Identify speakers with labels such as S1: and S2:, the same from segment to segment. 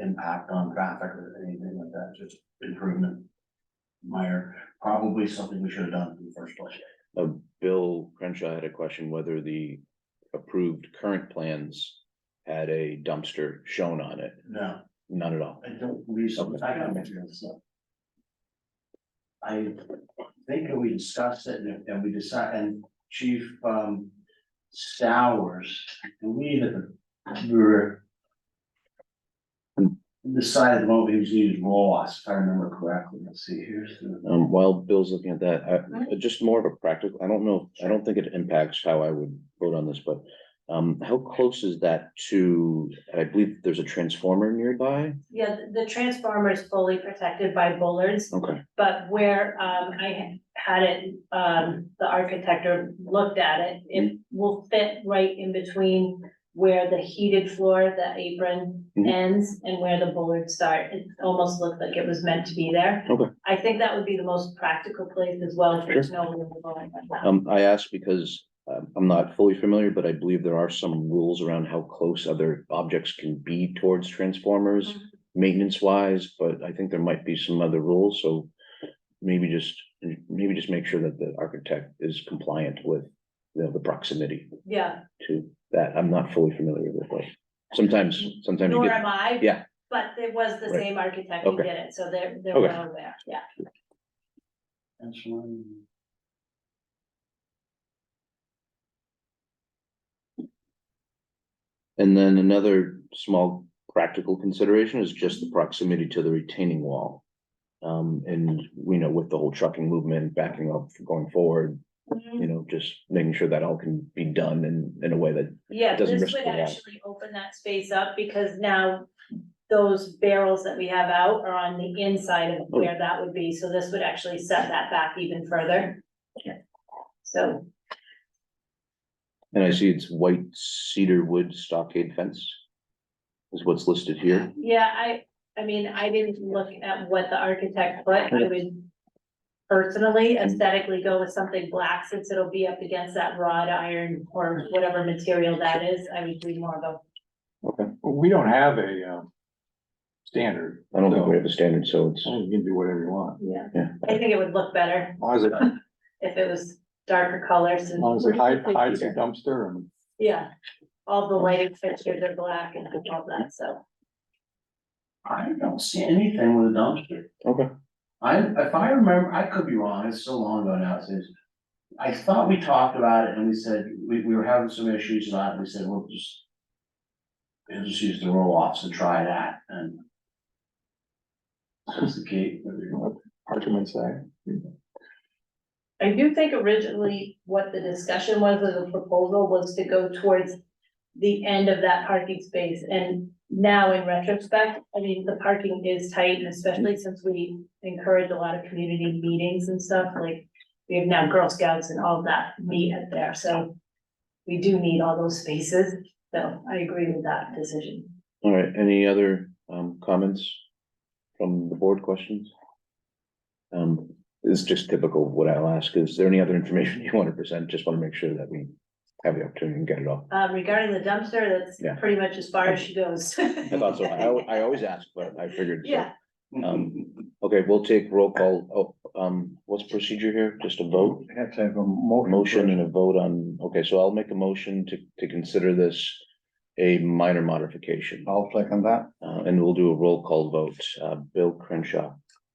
S1: impact on traffic or anything like that, just improvement. Minor, probably something we should have done in the first place.
S2: Uh, Bill Crenshaw had a question whether the approved current plans had a dumpster shown on it.
S1: No,
S2: None at all.
S1: I don't believe so, I gotta mention this stuff. I think we discussed it and and we decided, and Chief um Stowers, we had, we were. Decided what we was using Ross, if I remember correctly, let's see, here's the.
S2: Um, while Bill's looking at that, I, uh, just more of a practical, I don't know, I don't think it impacts how I would vote on this, but. Um, how close is that to, I believe there's a transformer nearby?
S3: Yeah, the- the transformer is fully protected by bollards,
S2: Okay,
S3: but where um I had it, um the architect or looked at it, it will fit right in between where the heated floor, the apron
S2: Mhm.
S3: ends and where the bollards start. It almost looked like it was meant to be there.
S2: Okay.
S3: I think that would be the most practical place as well, if there's no room going like that.
S2: um, I asked because um, I'm not fully familiar, but I believe there are some rules around how close other objects can be towards transformers.
S3: Mhm.
S2: Maintenance wise, but I think there might be some other rules, so maybe just, maybe just make sure that the architect is compliant with. You know, the proximity.
S3: Yeah,
S2: to that. I'm not fully familiar with what. Sometimes, sometimes you
S3: nor
S2: get,
S3: am I.
S2: yeah.
S3: But there was the
S2: Right.
S3: same architect who
S2: Okay.
S3: did it, so they're they're
S2: Okay.
S3: well aware, yeah.
S1: That's one.
S2: and then another small practical consideration is just the proximity to the retaining wall. Um, and we know with the whole trucking movement backing up going forward, you know, just making sure that all can be done in, in a way that,
S3: Yeah,
S2: doesn't
S3: this
S2: risk
S3: would
S2: the wall.
S3: actually open that space up because now those barrels that we have out are on the inside of
S2: Oh.
S3: where that would be, so this would actually set that back even further. So,
S2: and I see it's white cedar wood stockade fence. Is what's listed here.
S3: yeah, I, I mean, I didn't look at what the architect put, I would personally aesthetically go with something black since it'll be up against that wrought iron or whatever material that is, I would do more of a
S4: Well, We don't have a, um, standard.
S2: I don't think
S4: so
S2: we have a standard, so it's,
S4: You can do whatever you want.
S3: Yeah,
S2: Yeah.
S3: I think it would look better
S4: As long as it, as
S3: if it was darker colors and.
S4: long as it hides, hides the dumpster and
S3: Yeah, all the lighting fixtures are black and all that, so.
S1: I don't see anything with a dumpster.
S2: okay.
S1: I, if I remember, I could be wrong, it's so long ago now, since. I thought we talked about it and we said, we, we were having some issues about it, we said, we'll just. We'll just use the roll offs and try that and. That's the key.
S4: parchment inside.
S3: I do think originally what the discussion was of the proposal was to go towards the end of that parking space, and now in retrospect, I mean, the parking is tight, and especially since we encourage a lot of community meetings and stuff, like we have now Girl Scouts and all that meet at there, so we do need all those spaces, so I agree with that decision.
S2: All right, any other um comments from the board questions? Um, this is just typical of what I'll ask. Is there any other information you want to present? Just want to make sure that we have the opportunity and get it all.
S3: Um, regarding the dumpster, that's
S2: Yeah.
S3: pretty much as far as she goes.
S2: I thought so. I al- I always ask, but I figured. so.
S3: Yeah,
S2: Um, Okay, we'll take roll call. Oh, um, what's procedure here? Just a vote?
S4: Have to have a motion.
S2: Motion and a vote on, okay, so I'll make a motion to to consider this a minor modification.
S4: I'll second that.
S2: Uh, and we'll do a roll call vote. Uh, Bill Crenshaw,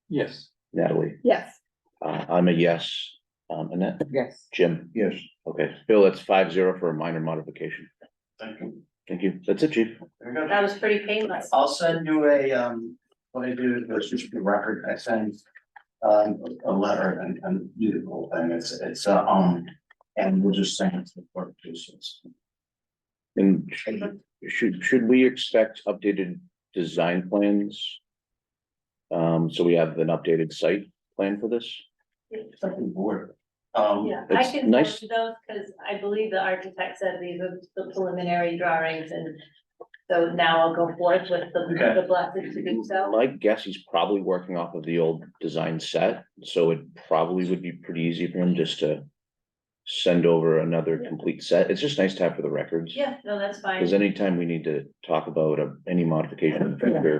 S4: Yes.
S2: Natalie.
S5: Yes.
S2: Uh, I'm a yes. Um, Annette,
S5: Yes.
S2: Jim?
S4: Yes.
S2: Okay, Bill, that's five zero for a minor modification.
S1: Thank you.
S2: Thank you. That's it, chief.
S1: There you go.
S3: that was pretty painless.
S1: I'll send you a, um, what I do, it's just a record, I send. Um, a letter and, and do the whole thing, it's, it's, uh, um, and we'll just send it to the court.
S2: And should, should we expect updated design plans? Um, so we have an updated site plan for this?
S1: Something bored. Um.
S3: Yeah, I
S2: It's
S3: can
S2: nice.
S3: forward those, because I believe the architect said these are the preliminary drawings, and so now I'll go forth with the,
S1: Okay.
S3: the blessing to do so.
S2: My guess, he's probably working off of the old design set, so it probably would be pretty easy for him just to send over another complete set. It's just nice to have for the records.
S3: Yeah, no, that's fine.
S2: Because anytime we need to talk about a- any uh, modification of the picture,